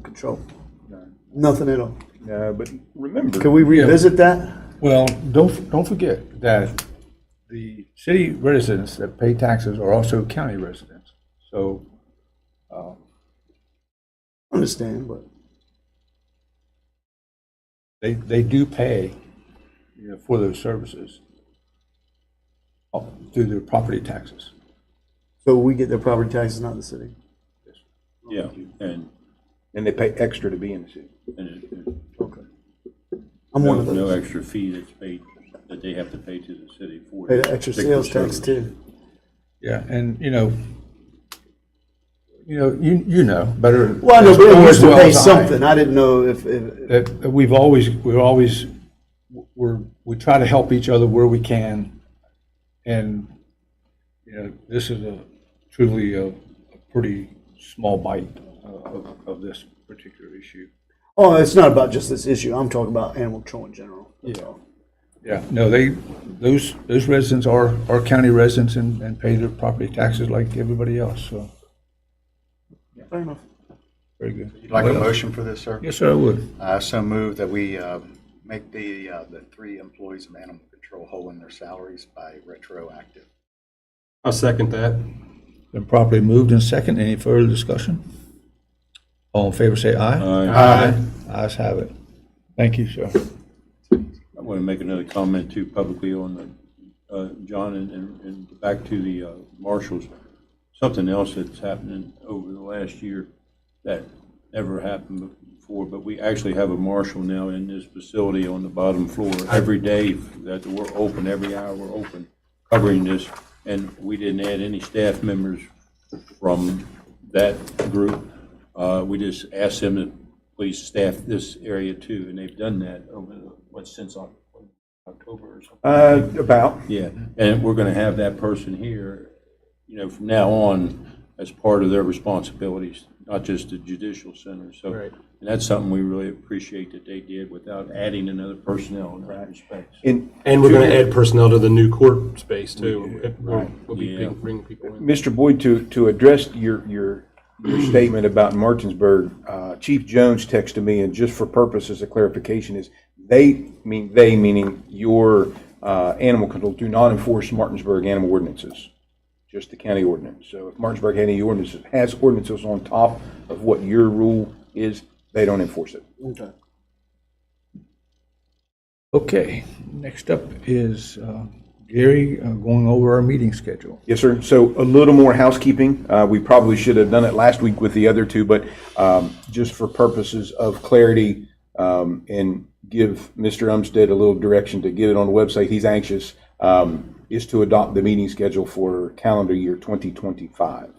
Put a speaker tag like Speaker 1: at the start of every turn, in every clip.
Speaker 1: control. Nothing at all.
Speaker 2: No, Uh, but remember.
Speaker 1: Can we revisit that?
Speaker 3: Well, don't, don't forget that the city residents that pay taxes are also county residents. So um,
Speaker 1: Understand, but
Speaker 3: they, they do pay you know, for those services uh, through their property taxes.
Speaker 1: so we get their property taxes, not the city.
Speaker 2: Yeah, and, and they pay extra to be in the city.
Speaker 4: And it- it-
Speaker 1: Okay. I'm one
Speaker 4: no
Speaker 1: of
Speaker 4: no
Speaker 1: those.
Speaker 4: extra fee that's paid, that they have to pay to the city for.
Speaker 1: Pay the extra
Speaker 4: particular
Speaker 1: sales tax
Speaker 4: service.
Speaker 1: too.
Speaker 3: Yeah, and, you know, you know, you, you know better.
Speaker 1: Well, I know, but
Speaker 3: as
Speaker 1: it used to
Speaker 3: well
Speaker 1: pay
Speaker 3: as I
Speaker 1: something. I didn't know if, if,
Speaker 3: That that we've always, we're always, we're, we try to help each other where we can. And, you know, this is a truly a, a pretty small bite uh, of, of this particular issue.
Speaker 1: oh, it's not about just this issue. I'm talking about animal control in general. That's all.
Speaker 3: Yeah, no, they, those, those residents are, are county residents and, and pay their property taxes like everybody else, so,
Speaker 1: Fair enough.
Speaker 3: very good.
Speaker 5: Like a motion for this, sir?
Speaker 3: Yes, sir, I would.
Speaker 5: I so move that we uh, make the, uh, the three employees of animal control whole in their salaries by retroactive.
Speaker 6: I'll second that.
Speaker 3: Been properly moved and second. Any further discussion? All in favor, say aye.
Speaker 4: Uh,
Speaker 3: Ayes have it. Thank you, sir.
Speaker 4: I want to make another comment too publicly on the, uh, John, and- and, and back to the uh, marshals. Something else that's happening over the last year that never happened before, but we actually have a marshal now in this facility on the bottom floor. Every day that we're open, every hour we're open, covering this, and we didn't add any staff members from that group. Uh, We just asked them to please staff this area too, and they've done that over, the- what, since Oc- October or something?
Speaker 2: Uh, about,
Speaker 4: Yeah, and we're going to have that person here, you know, from now on as part of their responsibilities, not just the judicial center, so.
Speaker 2: Right.
Speaker 4: And that's something we really appreciate that they did without adding another personnel in that respect.
Speaker 2: and
Speaker 6: And we're going to add personnel to the new court space too. We'll we'll be
Speaker 4: Yeah.
Speaker 6: bringing bringing people in.
Speaker 2: Mr. Boyd, to, to address your, your, your statement about Martinsburg, uh, Chief Jones texted me, and just for purposes of clarification, is they, mean, they meaning your, uh, animal control, do not enforce Martinsburg animal ordinances, just the county ordinance. So if Martinsburg had any ordinances, has ordinances on top of what your rule is, they don't enforce it.
Speaker 1: Okay.
Speaker 3: Okay, next up is uh, Gary uh, going over our meeting schedule.
Speaker 2: Yes, sir. So a little more housekeeping. Uh, We probably should have done it last week with the other two, but um, just for purposes of clarity um, and give Mr. Umstead a little direction to get it on the website, he's anxious, um, is to adopt the meeting schedule for calendar year 2025.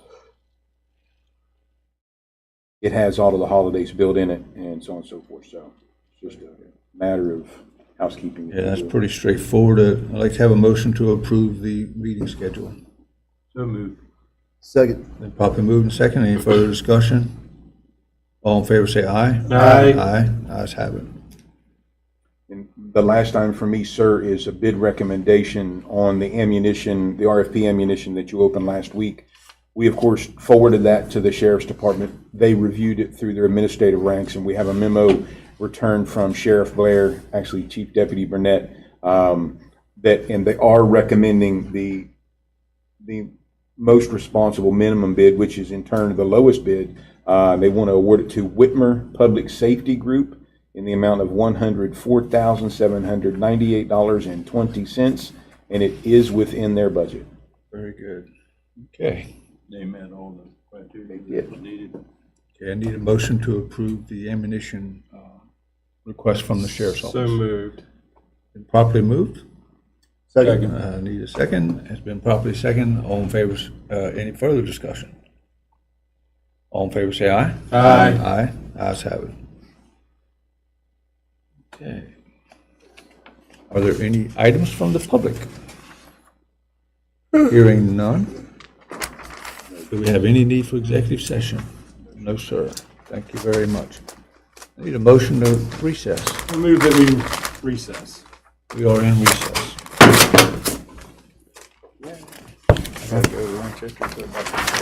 Speaker 2: It has all of the holidays built in it and so on and so forth, so it's just a matter of housekeeping.
Speaker 3: Yeah, that's pretty straightforward. Uh, I'd like to have a motion to approve the meeting schedule.
Speaker 4: So moved.
Speaker 1: Second.
Speaker 3: Then properly moved and second. Any further discussion? All in favor, say aye.
Speaker 6: Aye.
Speaker 3: Aye. Ayes have it.
Speaker 2: And the last time for me, sir, is a bid recommendation on the ammunition, the RFP ammunition that you opened last week. We, of course, forwarded that to the sheriff's department. They reviewed it through their administrative ranks, and we have a memo returned from Sheriff Blair, actually Chief Deputy Burnett, um, that, and they are recommending the, the most responsible minimum bid, which is in turn the lowest bid. Uh, They want to award it to Whitmer Public Safety Group in the amount of $104,798.20, and it is within their budget.
Speaker 3: Very good. Okay.
Speaker 4: They met all the criteria
Speaker 2: did.
Speaker 4: that was needed.
Speaker 3: Okay, I need a motion to approve the ammunition uh, request from the sheriff's
Speaker 6: So
Speaker 3: office.
Speaker 6: moved.
Speaker 3: Been Properly moved.
Speaker 1: Second.
Speaker 3: Uh, Need a second. It's been properly second. All in favor, s- uh, any further discussion? All in favor, say aye.
Speaker 6: Aye.
Speaker 3: Aye. Ayes have it. Okay. Are there any items from the public? Hearing none. Do we have any need for executive session? No, sir. Thank you very much. I Need a motion to recess.
Speaker 6: I move that we recess.
Speaker 3: We are in recess.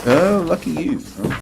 Speaker 2: Oh, lucky you.